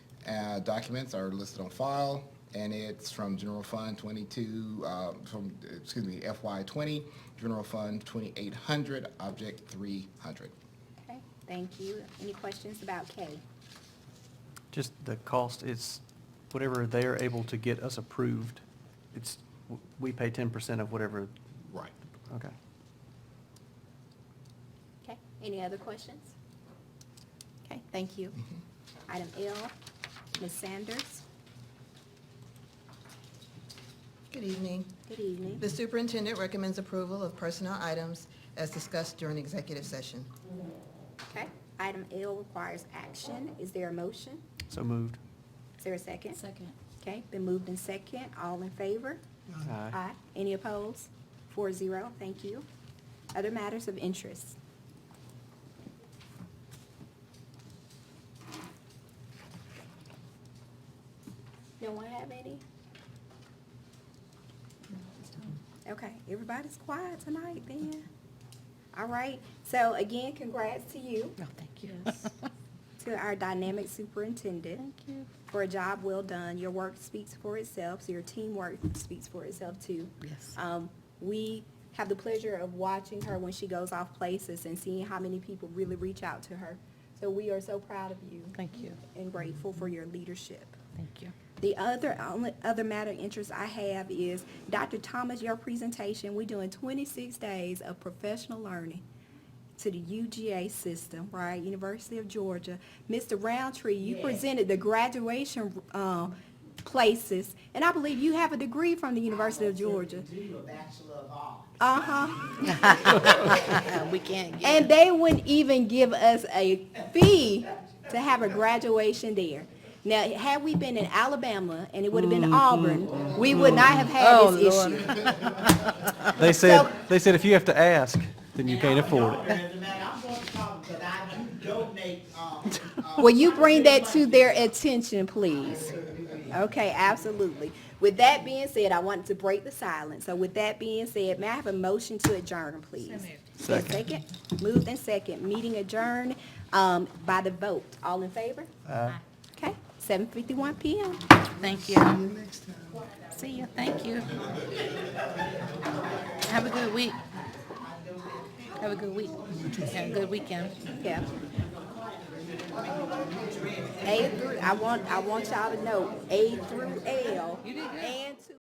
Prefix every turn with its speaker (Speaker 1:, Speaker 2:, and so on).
Speaker 1: uh, documents are listed on file, and it's from General Fund 22, uh, from, excuse me, FY 20, General Fund 2800, Object 300.
Speaker 2: Okay, thank you. Any questions about K?
Speaker 3: Just the cost, it's whatever they're able to get us approved, it's, we pay ten percent of whatever,
Speaker 1: Right.
Speaker 3: okay.
Speaker 2: Okay, any other questions? Okay, thank you. Item L, Ms. Sanders,
Speaker 4: Good evening.
Speaker 2: good evening.
Speaker 4: The superintendent recommends approval of personnel items as discussed during executive session.
Speaker 2: Okay, item L requires action. Is there a motion?
Speaker 3: So moved.
Speaker 2: Is there a second?
Speaker 5: Second.
Speaker 2: Okay, been moved in second. All in favor?
Speaker 3: Aye.
Speaker 2: Any opposed? Four zero, thank you. Other matters of interest? No one have any? Okay, everybody's quiet tonight then. All right, so again, congrats to you,
Speaker 5: No, thank you. Yes.
Speaker 2: to our dynamic superintendent
Speaker 5: Thank you.
Speaker 2: for a job well done. Your work speaks for itself, so your teamwork speaks for itself too.
Speaker 5: Yes.
Speaker 2: Um, we have the pleasure of watching her when she goes off places and seeing how many people really reach out to her. So we are so proud of you.
Speaker 5: Thank you.
Speaker 2: And grateful for your leadership.
Speaker 5: Thank you.
Speaker 2: The other, only other matter of interest I have is, Dr. Thomas, your presentation, we're doing twenty-six days of professional learning to the UGA system, right, University of Georgia. Mr. Roundtree, you presented the graduation, um, places, and I believe you have a degree from the University of Georgia.
Speaker 6: Do a Bachelor of Arts.
Speaker 2: Uh-huh.
Speaker 5: We can't get.
Speaker 2: And they wouldn't even give us a fee to have a graduation there. Now, had we been in Alabama and it would have been Auburn, we would not have had
Speaker 5: Mm-hmm. Oh,
Speaker 2: this
Speaker 5: Lord.
Speaker 2: issue.
Speaker 3: They said,
Speaker 2: So-
Speaker 3: they said if you have to ask, then you can't afford it.
Speaker 6: As a matter, I'm going to call because I do donate, um,
Speaker 2: Will you bring that to their attention, please? Okay, absolutely. With that being said, I wanted to break the silence. So with that being said, may I have a motion to adjourn, please? Second. Second, moved and second, meeting adjourned, um, by the vote. All in favor? Okay, seven fifty-one PM.
Speaker 5: Thank you. See you, thank you. Have a good week. Have a good week. And a good weekend.
Speaker 2: Yeah. A through, I want, I want y'all to know, A through L.
Speaker 5: You did good.
Speaker 2: And to